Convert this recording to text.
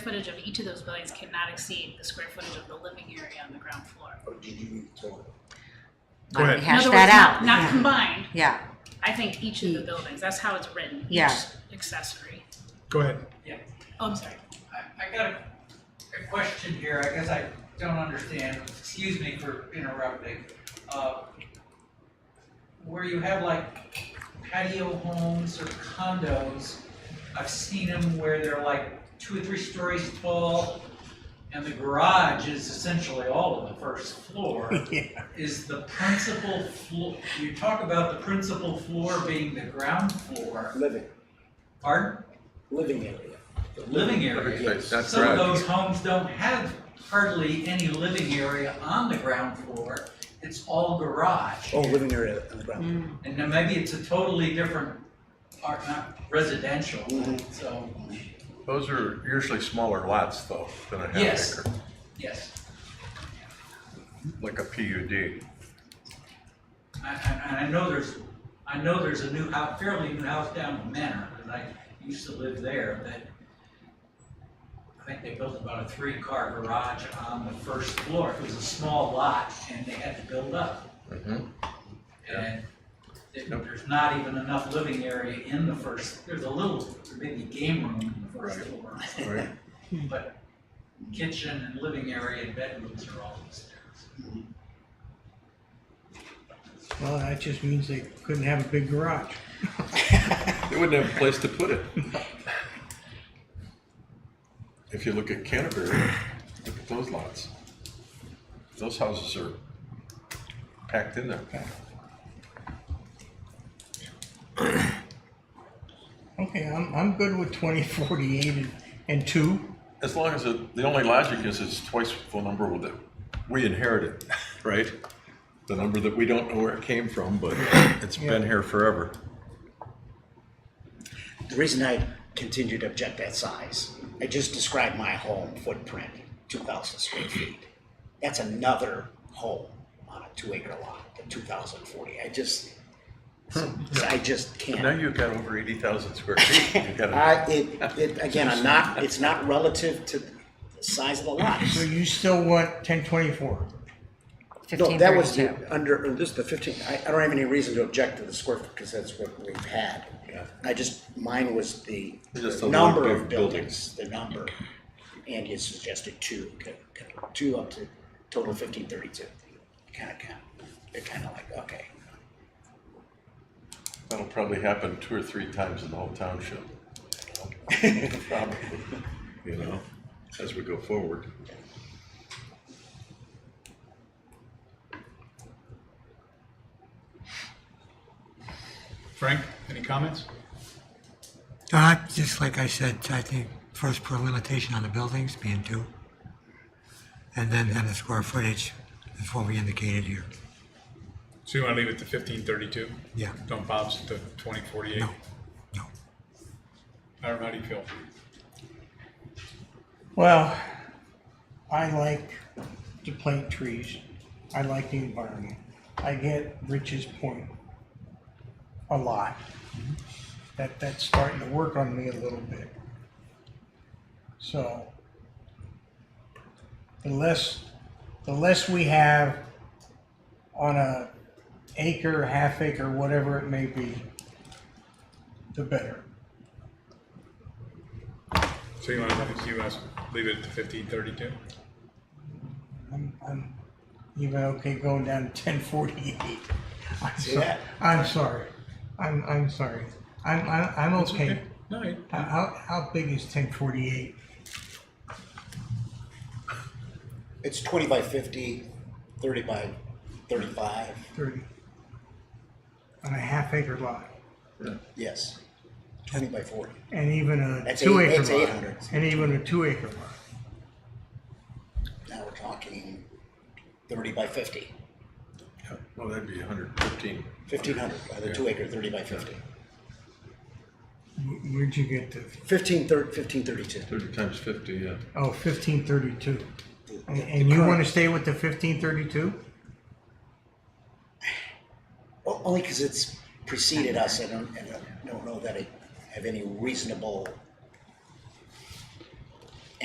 footage of each of those buildings cannot exceed the square footage of the living area on the ground floor. Or did you read the total? Go ahead. In Hash other that words, out. Not, Yeah. not combined, Yeah, I think each of the buildings, that's how it's written, each Yeah. accessory. Go ahead. Oh, I'm sorry, I, I got a, a question here, I guess I don't understand, excuse me for interrupting. Uh, Where you have like patio homes or condos, I've seen them where they're like two or three stories tall, and the garage is essentially all of the first floor. Is the principal floor, you talk about the principal floor being the ground floor, Living, pardon, living area. The living area. Yes. That's Some of correct. those homes don't have hardly any living area on the ground floor. It's all garage. Oh, living area on the Mm. ground. And then maybe it's a totally different, or not residential, Mhm. so, Those are usually smaller lots though than a half Yes. acre, yes. like a PUD. I, I, and I know there's, I know there's a new house, fairly new house down in Manor, because I used to live there, that I think they built about a three-car garage on the first floor. It was a small lot, and they had to build up. Mhm. And it- Yep. there's not even enough living area in the first, there's a little, maybe game room in the first Right. floor. Right. But kitchen and living area and bedrooms are all upstairs. Well, that just means they couldn't have a big garage. They wouldn't have a place to put it. If you look at Canterbury, look at those lots. Those houses are packed in there. Okay, I'm, I'm good with twenty, forty-eight and, and two. As long as it, the only logic is it's twice the number that we inherited, right? The number that we don't know where it came from, but it's been here forever. The reason I continue to object that size, I just described my home footprint, two thousand square feet. That's another home on a two acre lot, the two thousand forty. I just, so- Hmm. so I just Now can't. you've got over eighty thousand square feet. You've got I, a- it, it, again, I'm not, it's not relative to the size of the lot. So you still want ten twenty-four? No, fifteen that was thirty-two. the, under, or this is the fifteen, I, I don't have any reason to object to the square foot, because that's what we've had. I just, mine was the Just the a number little big of buildings, the number. And he suggested two, c- c- two up to total fifteen thirty-two. Kind of, kind of, they're kind of like, okay. That'll probably happen two or three times in the whole township. Probably, You know, as we go forward. Frank, any comments? Uh, just like I said, I think first put a limitation on the buildings being two. And then, then the square footage is what we indicated here. So you want to leave it to fifteen thirty-two? Yeah. Don't bounce it to twenty forty-eight? No, no. How how do you feel? Well, I like to plant trees. I like the environment. I get Rich's point a lot. That, that's starting to work on me a little bit. So the less, the less we have on a acre, half acre, whatever it may be, the better. So you want to, you want to leave it to fifteen thirty-two? I'm, I'm even okay going down to ten forty-eight. I'm See sorry. that? I'm sorry. I'm, I'm sorry. I'm, I'm, I'm okay. No, you- How- How, how big is ten forty-eight? It's twenty by fifty, thirty by thirty-five, Thirty? On a half acre lot yes, twenty by forty. and even a That's two eight- acre that's eight lot. hundred. And even a two acre lot. Now we're talking thirty by fifty, Well, that'd be hundred and fifteen. fifteen hundred, the two acre, thirty by fifty. Wh- Where'd you get the, Fifteen thir- fifteen thirty-two. Thirty times fifty, yeah. oh, fifteen thirty-two? The- And, the and you current- wanna stay with the fifteen thirty-two? O- Only because it's preceded us, I don't, and I don't know that I have any reasonable